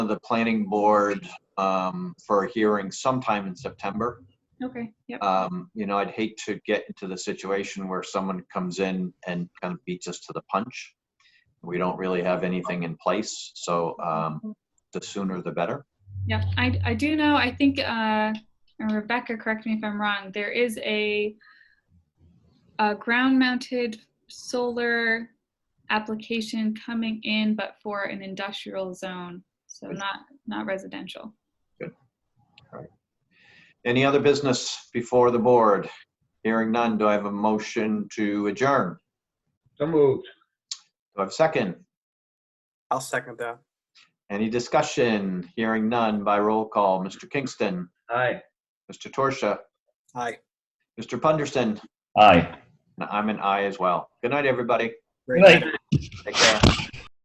the planning board um, for a hearing sometime in September. Okay, yep, Um, You know, I'd hate to get into the situation where someone comes in and kind of beats us to the punch. We don't really have anything in place, so um, the sooner the better. yeah. I, I do know, I think, uh, and Rebecca, correct me if I'm wrong, there is a, a ground-mounted solar application coming in, but for an industrial zone, so not, not residential. Any other business before the board? Hearing none, do I have a motion to adjourn? So moved. Do I have a second? I'll second that. Any discussion? Hearing none by roll call. Mr. Kingston, Aye. Mr. Torsia, Aye. Mr. Punderson, Aye. and I'm an aye as well. Good night, everybody. Great. Right. Take care.